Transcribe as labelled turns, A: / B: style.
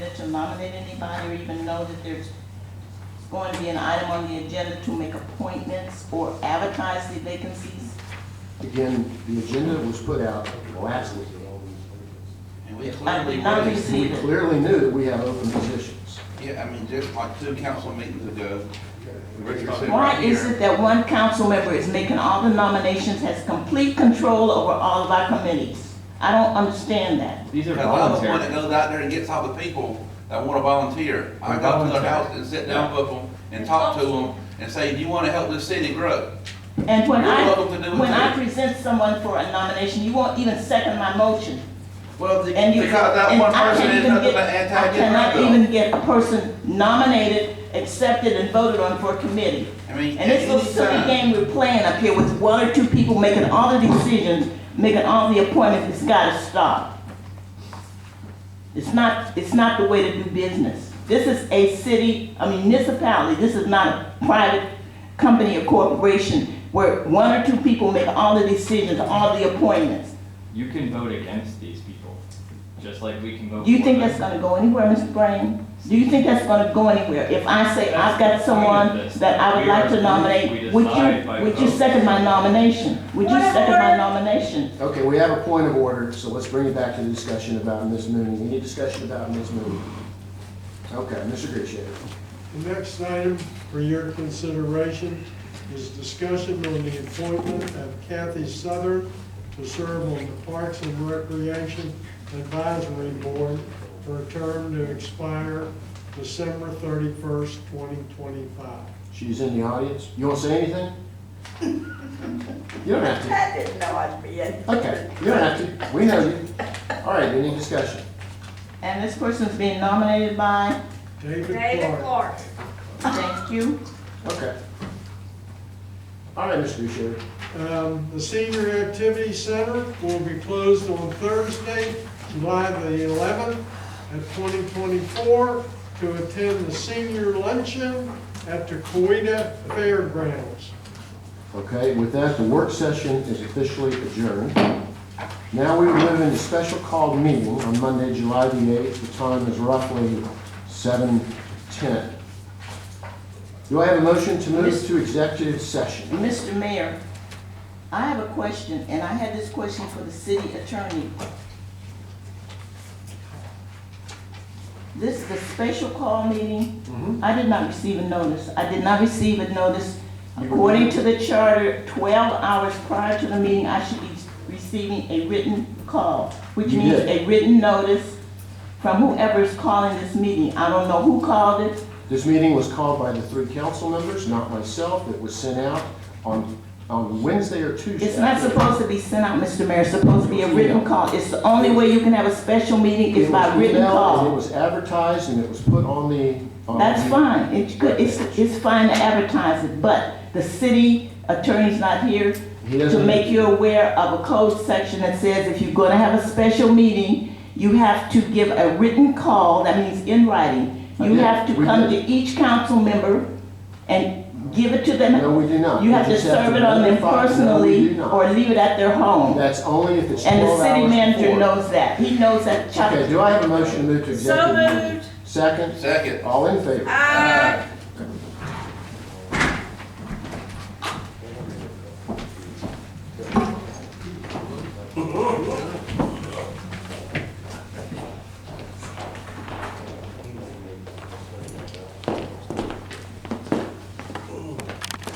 A: nominate anybody or even know that there's going to be an item on the agenda to make appointments or advertise the vacancies?
B: Again, the agenda was put out last week.
C: And we
A: I
C: clearly
A: did not
C: raised,
B: We
A: receive it.
B: clearly knew that we have open positions.
C: yeah, I mean, just like two council meetings ago, Richard said
A: Why
C: right
A: is it
C: here.
A: that one council member is making all the nominations, has complete control over all of our committees? I don't understand that.
D: These are
C: Because I'm the one that
D: voluntary.
C: goes out there and gets all the people that want to volunteer. I go to their house and sit down with them and talk to them and say, do you want to help this city grow?
A: And when
C: You're
A: I,
C: welcome to do it
A: when I
C: too.
A: present someone for a nomination, you won't even second my motion.
C: Well, the-
A: And you,
C: because that
A: and
C: one
A: I
C: person
A: can't
C: is
A: even
C: nothing
A: get,
C: but
A: I cannot
C: anti-Democrat.
A: even get a person nominated, accepted, and voted on for a committee.
C: I mean,
A: And this little silly
C: anytime.
A: game we're playing up here with one or two people making all the decisions, making all the appointments, it's gotta stop. It's not, it's not the way to do business. This is a city, a municipality, this is not a private company or corporation where one or two people make all the decisions, all the appointments.
D: You can vote against these people, just like we can vote.
A: Do you
D: for
A: think
D: them.
A: that's gonna go anywhere, Mr. Brain? Do you think that's gonna go anywhere? If I say I've got someone that I would like to nominate, would you, would you second my nomination? Would you second my nomination?
B: Okay, we have a point of order, so let's bring it back to the discussion about Ms. Mooney. Any discussion about Ms. Mooney? Okay, Mr. Grishere.
E: The next item for your consideration is discussion on the appointment of Kathy Southern to serve on the Parks and Recreation Advisory Board for a term to expire December thirty-first, twenty twenty-five.
B: She's in the audience. You want to say anything? You don't have to.
F: I didn't know I'd be in.
B: Okay, you don't have to. We know you. All right, any discussion?
A: And this person's being nominated by,
E: David
F: David
E: Clark.
F: Clark.
A: thank you.
B: Okay. All right, Mr. Grishere.
E: Um, The Senior Activity Center will be closed on Thursday, July the 11th at 2024 to attend the senior luncheon at the Coeita Fairgrounds.
B: Okay, with that, the work session is officially adjourned. Now we move into special called meeting on Monday, July the 8th. The time is roughly 7:10. Do I have a motion to move to executive session?
A: Mr. Mayor, I have a question, and I had this question for the city attorney. This is a special call meeting.
B: Mm-hmm.
A: I did not receive a notice. I did not receive a notice. According to the charter, 12 hours prior to the meeting, I should be receiving a written call, which
B: You
A: means
B: did.
A: a written notice from whoever is calling this meeting. I don't know who called it.
B: This meeting was called by the three council members, not myself. It was sent out on, on Wednesday or Tuesday.
A: It's not supposed to be sent out, Mr. Mayor, it's supposed to be a written call. It's the only way you can have a special meeting is
B: It was
A: by written
B: emailed, and It
A: call.
B: was advertised and it was put on the. on
A: That's
B: the-
A: fine, it's good, it's, it's fine to advertise it, but the city attorney's not here
B: He
A: to
B: doesn't-
A: make you aware of a code section that says if you're gonna have a special meeting, you have to give a written call, that means in writing. You
B: Yeah,
A: have to
B: we
A: come to
B: did.
A: each council member and give it to them.
B: No, we do not.
A: You
B: We
A: have to
B: just have
A: serve
B: to
A: it on them
B: notify- no, we do
A: personally
B: not.
A: or leave it at their home.
B: That's only if it's
A: And
B: twelve
A: the
B: hours
A: city manager
B: before.
A: knows that. He knows that Chuck,
B: Okay, do I have a motion to move to
F: So
B: executive? meeting?
F: moved.
B: Second,
C: Second.
B: all in favor?
F: Aye.